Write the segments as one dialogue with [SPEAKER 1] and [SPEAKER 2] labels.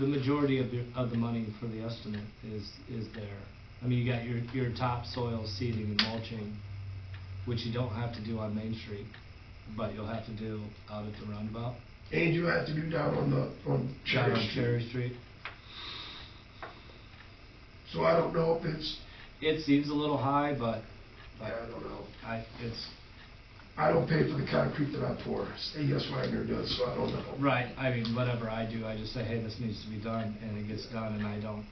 [SPEAKER 1] the majority of the, of the money for the estimate is, is there. I mean, you got your, your topsoil seeding and mulching, which you don't have to do on Main Street, but you'll have to do out at the roundabout.
[SPEAKER 2] And you have to do down on the, on
[SPEAKER 1] down
[SPEAKER 2] Cherry
[SPEAKER 1] on
[SPEAKER 2] Street.
[SPEAKER 1] Cherry Street.
[SPEAKER 2] So I don't know if it's,
[SPEAKER 1] It seems a little high, but,
[SPEAKER 2] I
[SPEAKER 1] but
[SPEAKER 2] don't know.
[SPEAKER 1] I, it's,
[SPEAKER 2] I don't pay for the concrete that I pour. A.S. Wagner does, so I don't know.
[SPEAKER 1] right, I mean, whatever I do, I just say, hey, this needs to be done, and it gets done, and I don't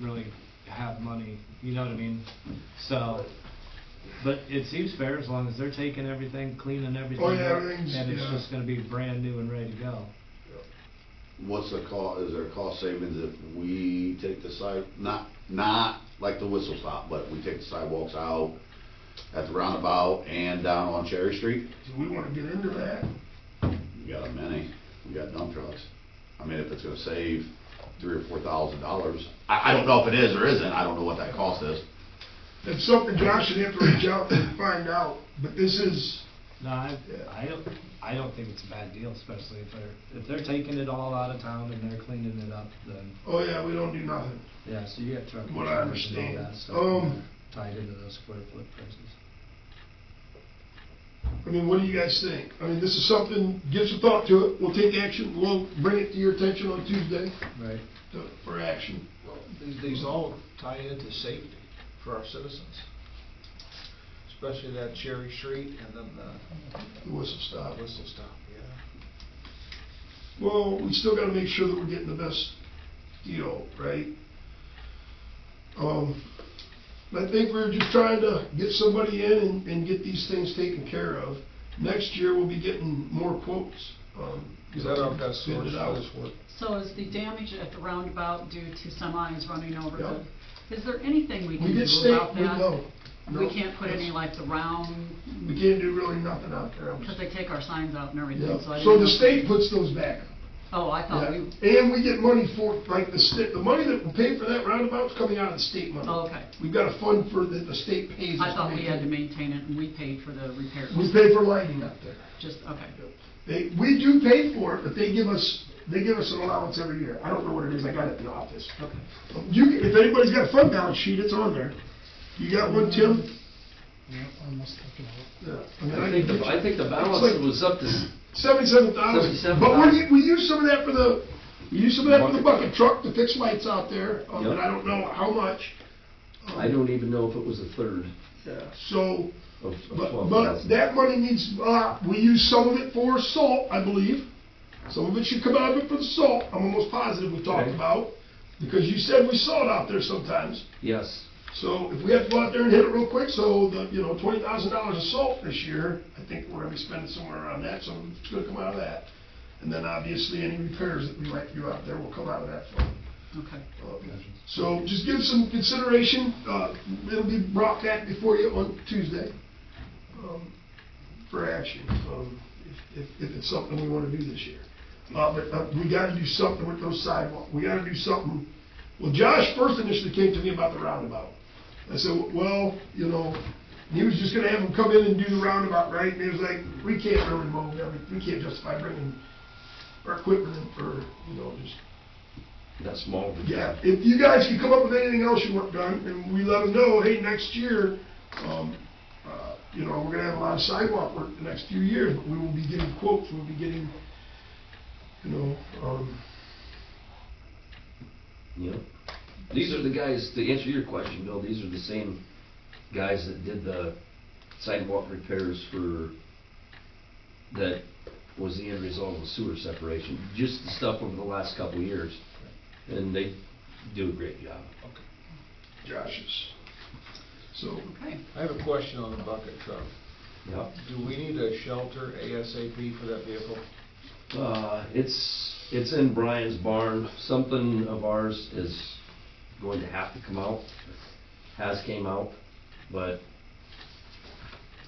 [SPEAKER 1] really have money, you know what I mean? So, but it seems fair as long as they're taking everything, cleaning everything
[SPEAKER 2] Oh, yeah,
[SPEAKER 1] up,
[SPEAKER 2] everything's-
[SPEAKER 1] and it's
[SPEAKER 2] yeah.
[SPEAKER 1] just gonna be brand new and ready to go.
[SPEAKER 3] What's the cost, is there cost savings if we take the side, not, not like the whistle stop, but we take the sidewalks out at the roundabout and down on Cherry Street?
[SPEAKER 2] Do we wanna get into that?
[SPEAKER 3] We got a many, we got dump trucks. I mean, if it's gonna save three or four thousand dollars, I, I don't know if it is or isn't, I don't know what that cost is.
[SPEAKER 2] That's something Josh should have to reach out and find out, but this is,
[SPEAKER 1] No, I,
[SPEAKER 2] Yeah.
[SPEAKER 1] I don't, I don't think it's a bad deal, especially if they're, if they're taking it all out of town and they're cleaning it up, then,
[SPEAKER 2] oh yeah, we don't do nothing.
[SPEAKER 1] yeah, so you got truck
[SPEAKER 2] What I
[SPEAKER 1] insurance and all
[SPEAKER 2] understand.
[SPEAKER 1] that stuff
[SPEAKER 2] Um,
[SPEAKER 1] tied into those square foot prices.
[SPEAKER 2] I mean, what do you guys think? I mean, this is something, give some thought to it, we'll take action, we'll bring it to your attention on Tuesday
[SPEAKER 1] Right.
[SPEAKER 2] to- for action.
[SPEAKER 4] Well, These, these all tie into safety for our citizens, especially that Cherry Street and then the uh,
[SPEAKER 2] The whistle stop.
[SPEAKER 4] whistle stop, yeah.
[SPEAKER 2] Well, we still gotta make sure that we're getting the best deal, right? Um, I think we're just trying to get somebody in and, and get these things taken care of. Next year, we'll be getting more quotes, um.
[SPEAKER 4] Is that our best
[SPEAKER 2] bid it
[SPEAKER 4] source
[SPEAKER 2] out.
[SPEAKER 4] for this work?
[SPEAKER 5] So is the damage at the roundabout due to semis running over
[SPEAKER 2] Yeah.
[SPEAKER 5] the, is there anything we
[SPEAKER 2] We
[SPEAKER 5] can
[SPEAKER 2] did
[SPEAKER 5] do
[SPEAKER 2] state,
[SPEAKER 5] about
[SPEAKER 2] we,
[SPEAKER 5] that?
[SPEAKER 2] no. no,
[SPEAKER 5] We can't put any like the round,
[SPEAKER 2] We can't do really nothing out there. I'm
[SPEAKER 5] because
[SPEAKER 2] just-
[SPEAKER 5] they take our signs out and
[SPEAKER 2] Yeah.
[SPEAKER 5] everything, so I didn't
[SPEAKER 2] So the
[SPEAKER 5] know-
[SPEAKER 2] state puts those back.
[SPEAKER 5] Oh, I thought
[SPEAKER 2] Yeah.
[SPEAKER 5] we,
[SPEAKER 2] And we get money for, like, the state, the money that we pay for that roundabout's coming out of the state money.
[SPEAKER 5] oh, okay.
[SPEAKER 2] We've got a fund for, that the state pays. us
[SPEAKER 5] I
[SPEAKER 2] to
[SPEAKER 5] thought we
[SPEAKER 2] make
[SPEAKER 5] had
[SPEAKER 2] it.
[SPEAKER 5] to maintain it and we paid for the repairs.
[SPEAKER 2] We pay for lighting up there.
[SPEAKER 5] Just, okay.
[SPEAKER 2] They, we do pay for it, but they give us, they give us an allowance every year. I don't know what it is, I got it in the office.
[SPEAKER 5] Okay.
[SPEAKER 2] You, can- if anybody's got a fund balance sheet, it's on there. You got one, Tim? Yeah, I mean,
[SPEAKER 6] I
[SPEAKER 2] I
[SPEAKER 6] think,
[SPEAKER 2] can
[SPEAKER 6] the- I
[SPEAKER 2] get
[SPEAKER 6] think the
[SPEAKER 2] It's
[SPEAKER 6] balance
[SPEAKER 2] like-
[SPEAKER 6] was up to, s-
[SPEAKER 2] Seventy-seven thousand,
[SPEAKER 6] $77,000.
[SPEAKER 2] but we, we use some of that for the, we use some of that for the bucket truck to fix lights out there, um, and
[SPEAKER 6] Yep.
[SPEAKER 2] I don't know how much. Um,
[SPEAKER 6] I don't even know if it was a third
[SPEAKER 2] Yeah, so,
[SPEAKER 6] of
[SPEAKER 2] but,
[SPEAKER 6] twelve
[SPEAKER 2] but
[SPEAKER 6] thousand.
[SPEAKER 2] that money needs, uh, we use some of it for salt, I believe. Some of it should come out of it for the salt, I'm almost positive we talked
[SPEAKER 6] Okay.
[SPEAKER 2] about, because you said we saw it out there sometimes.
[SPEAKER 6] Yes,
[SPEAKER 2] So if we have to go out there and hit it real quick, so the, you know, twenty thousand dollars of salt this year, I think we're gonna be spending somewhere around that, so it's gonna come out of that. And then obviously any repairs that we might do out there will come out of that fund.
[SPEAKER 5] Okay.
[SPEAKER 2] Uh, So just give some consideration, uh, it'll be brought back before you on Tuesday, um, for action, um, if, if, if it's something we wanna do this year. Uh, but, uh, we gotta do something with those sidewalk, we gotta do something, well, Josh first initially came to me about the roundabout. I said, well, you know, he was just gonna have him come in and do the roundabout, right, and he was like, we can't really mow, every- we can't justify bringing our equipment in for, you know, just
[SPEAKER 6] that's small.
[SPEAKER 2] yeah, if you guys can come up with anything else you want done, and we let them know, hey, next year, um, uh, you know, we're gonna have a lot of sidewalk work the next few years, but we will be getting quotes, we'll be getting, you know, um,
[SPEAKER 6] Yep. These are the guys, to answer your question, Bill, these are the same guys that did the sidewalk repairs for, that was the end result of the sewer separation, just the stuff over the last couple of years. And they do a great job.
[SPEAKER 2] Josh's. So,
[SPEAKER 5] Okay.
[SPEAKER 4] I have a question on the bucket truck.
[SPEAKER 6] Yep.
[SPEAKER 4] Do we need a shelter ASAP for that vehicle?
[SPEAKER 6] Uh, it's, it's in Brian's barn. Something of ours is going to have to come out, has came out, but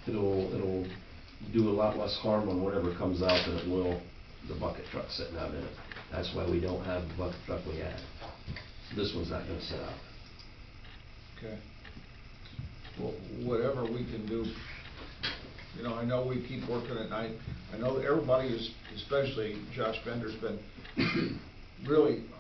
[SPEAKER 6] it'll, it'll do a lot less harm on whatever comes out than it will the bucket truck sitting out in it. That's why we don't have the bucket truck we had. This one's not gonna sit out.
[SPEAKER 4] Okay. Well, whatever we can do, you know, I know we keep working at night. I know that everybody is, especially Josh Bender's been really